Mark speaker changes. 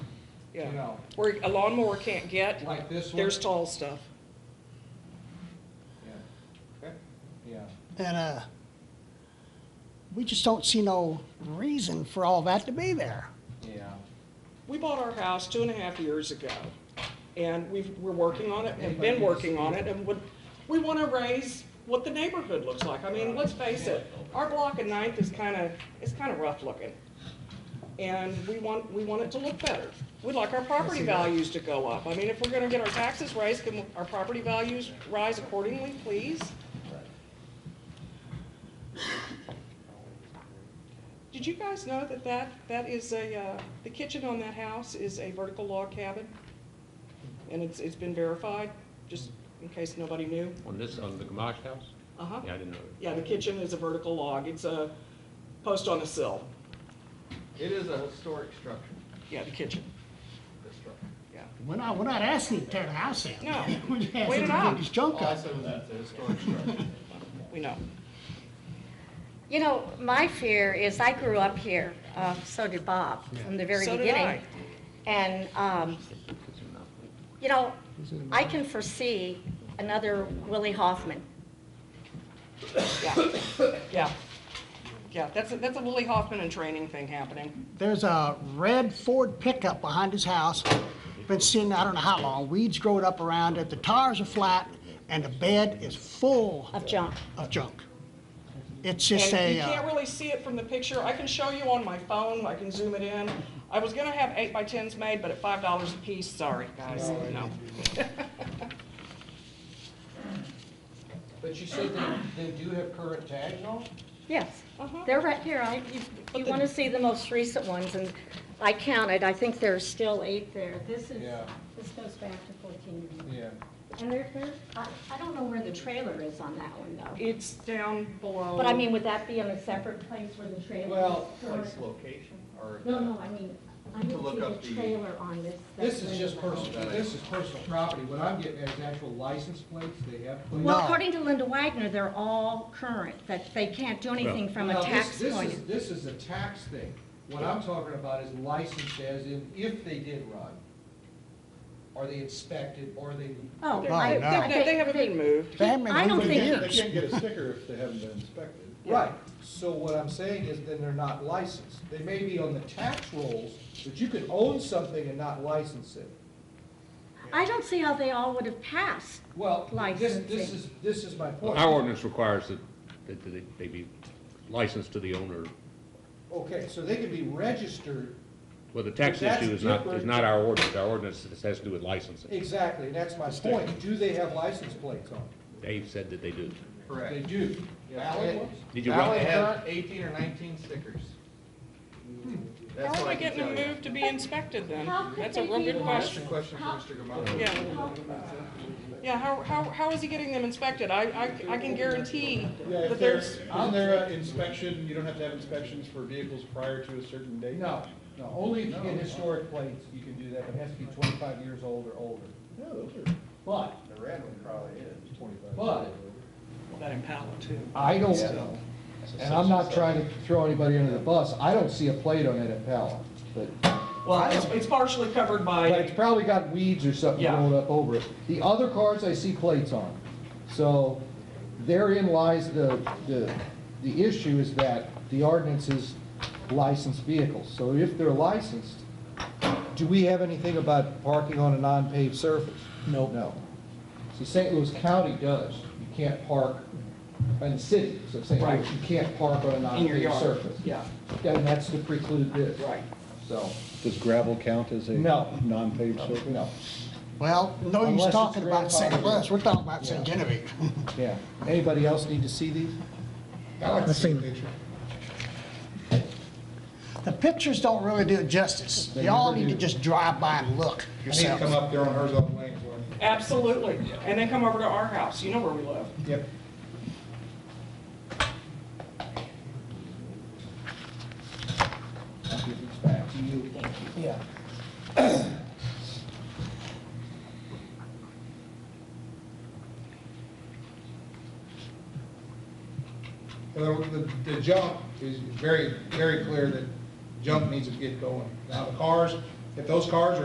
Speaker 1: you
Speaker 2: Yeah.
Speaker 1: know,
Speaker 2: Where a lawnmower can't get,
Speaker 1: like this one.
Speaker 2: there's tall stuff.
Speaker 1: Yeah. Yeah,
Speaker 3: And uh, we just don't see no reason for all that to be there.
Speaker 1: yeah.
Speaker 2: We bought our house two and a half years ago, and we've, we're working on it, and been working on it, and would, we wanna raise what the neighborhood looks like. I mean, let's face it, our block of Ninth is kinda, it's kinda rough looking. And we want, we want it to look better. We'd like our property values to go up. I mean, if we're gonna get our taxes raised, can our property values rise accordingly, please? Did you guys know that that, that is a, uh, the kitchen on that house is a vertical log cabin? And it's, it's been verified, just in case nobody knew.
Speaker 4: On this, on the Gamache house?
Speaker 2: Uh-huh.
Speaker 4: Yeah, I didn't know.
Speaker 2: Yeah, the kitchen is a vertical log. It's a post on a sill.
Speaker 1: It is a historic structure,
Speaker 2: Yeah, the kitchen,
Speaker 1: this structure.
Speaker 2: yeah.
Speaker 3: We're not, we're not asking you to tear the house down.
Speaker 2: No.
Speaker 3: We're just asking
Speaker 2: Wait
Speaker 3: you
Speaker 2: it
Speaker 3: to
Speaker 2: out.
Speaker 3: get this junk up.
Speaker 1: Also, that's a historic structure.
Speaker 2: We know.
Speaker 5: You know, my fear is I grew up here, uh, so did Bob from the very
Speaker 2: So did
Speaker 5: beginning.
Speaker 2: I.
Speaker 5: And, um, you know, I can foresee another Willie Hoffman.
Speaker 2: Yeah, yeah. Yeah, that's, a- that's a Willie Hoffman and training thing happening.
Speaker 3: There's a red Ford pickup behind his house. Been sitting, I don't know how long, weeds growed up around it, the tires are flat, and the bed is full
Speaker 5: Of junk.
Speaker 3: of junk. It's just
Speaker 2: And
Speaker 3: a,
Speaker 2: you can't
Speaker 3: uh,
Speaker 2: really see it from the picture. I can show you on my phone. I can zoom it in. I was gonna have eight by tens made, but at five dollars a piece, sorry, guys, no.
Speaker 1: But you said they, they do have current tags on?
Speaker 5: Yes,
Speaker 2: Uh-huh.
Speaker 5: they're right here. I, you- you want to see the most recent ones, and I counted, I think there's still eight there. This is,
Speaker 1: Yeah.
Speaker 5: this goes back to 14 years.
Speaker 1: Yeah.
Speaker 5: And there, there, I, I don't know where the trailer is on that one, though.
Speaker 2: It's down below.
Speaker 5: But I mean, would that be in a separate place where the trailer is?
Speaker 1: Well,
Speaker 5: current?
Speaker 1: place location or?
Speaker 5: No, no, I mean, I
Speaker 1: To look
Speaker 5: didn't
Speaker 1: up
Speaker 5: see
Speaker 1: the-
Speaker 5: the trailer on this.
Speaker 1: This is
Speaker 5: that's
Speaker 1: just
Speaker 5: labeled.
Speaker 1: personal, this is personal property. What I'm getting at is actual license plates, they have plates.
Speaker 5: Well,
Speaker 3: No.
Speaker 5: according to Linda Wagner, they're all current, that they can't do anything from
Speaker 1: Now,
Speaker 5: a
Speaker 1: this-
Speaker 5: tax
Speaker 1: this
Speaker 5: point.
Speaker 1: is-
Speaker 5: of-
Speaker 1: This is a tax thing. What I'm talking about is licensed as in if they did run. Are they inspected, are they?
Speaker 5: Oh,
Speaker 3: Oh,
Speaker 5: I-
Speaker 3: no.
Speaker 2: They-
Speaker 5: I-
Speaker 2: They they haven't been moved.
Speaker 3: they haven't
Speaker 5: I
Speaker 3: been
Speaker 5: don't
Speaker 3: moved in
Speaker 5: think-
Speaker 6: They
Speaker 3: years.
Speaker 6: can't get a sticker if they haven't been inspected.
Speaker 1: Right, so what I'm saying is then they're not licensed. They may be on the tax rolls, but you could own something and not license it.
Speaker 5: I don't see how they all would have passed.
Speaker 1: Well, this, this
Speaker 5: Licensing.
Speaker 1: is, this is my
Speaker 4: Well,
Speaker 1: point.
Speaker 4: Our ordinance requires that, that they- they be licensed to the owner.
Speaker 1: Okay, so they could be registered,
Speaker 4: Well, the tax
Speaker 1: That's
Speaker 4: issue is not, is
Speaker 1: different.
Speaker 4: not our ordinance. Our ordinance has to do with licensing.
Speaker 1: exactly, and that's my point. Do they have license plates on? them?
Speaker 4: Dave said that they do.
Speaker 7: Correct.
Speaker 1: They do. Valid ones?
Speaker 4: Did you
Speaker 7: Valley
Speaker 4: run,
Speaker 7: had eighteen or nineteen stickers.
Speaker 2: How
Speaker 7: That's
Speaker 2: are
Speaker 7: all
Speaker 2: they
Speaker 7: I can
Speaker 2: getting
Speaker 7: tell
Speaker 2: them
Speaker 7: you.
Speaker 2: moved to be inspected then?
Speaker 5: How could
Speaker 2: That's a
Speaker 5: they
Speaker 2: real
Speaker 5: be
Speaker 2: good
Speaker 7: That's the question
Speaker 2: question.
Speaker 7: for Mr. Gamache.
Speaker 2: Yeah. Yeah, how, how, how is he getting them inspected? I, I, I can guarantee
Speaker 6: Yeah,
Speaker 2: that there's,
Speaker 6: if there's, isn't there an inspection, you don't have to have inspections for vehicles prior to a certain date?
Speaker 1: No, no, only if you get historic plates, you can do that, but it has to be twenty-five years old or older.
Speaker 6: Yeah, those are,
Speaker 1: But,
Speaker 6: the red one probably is twenty-five.
Speaker 1: But-
Speaker 2: that Impala too.
Speaker 1: I don't, and I'm not trying to throw anybody under the bus, I don't see a plate on it at Pella, but,
Speaker 2: Well, it's, it's partially covered
Speaker 1: but it's
Speaker 2: by,
Speaker 1: probably got weeds or something
Speaker 2: Yeah.
Speaker 1: growing up over it. The other cars I see plates on, so therein lies the, the, the issue is that the ordinance is licensed vehicles, so if they're licensed, do we have anything about parking on a non-paved surface? No. No. See, St. Louis County does, you can't park, in the city, so St.
Speaker 2: Right.
Speaker 1: Louis, you can't park on a
Speaker 2: in your
Speaker 1: non-paved
Speaker 2: yard,
Speaker 1: surface.
Speaker 2: yeah,
Speaker 1: And that's to preclude this.
Speaker 2: right.
Speaker 1: So,
Speaker 6: Does gravel count as a
Speaker 1: No.
Speaker 6: non-paved surface?
Speaker 1: no,
Speaker 3: Well, no
Speaker 1: Unless
Speaker 3: use
Speaker 1: it's
Speaker 3: talking about St.
Speaker 1: grandfathered.
Speaker 3: Louis, we're talking about St. Genevieve.
Speaker 1: yeah. Anybody else need to see these?
Speaker 3: The pictures don't really do it justice. Y'all need to just drive by and look yourself.
Speaker 6: up there on Herzog Lane for me.
Speaker 2: Absolutely. And then come over to our house. You know where we live.
Speaker 1: Yep. I'll give these back to you. Yeah.
Speaker 8: Well, the, the jump is very, very clear that jump needs to get going. Now, the cars, if those cars are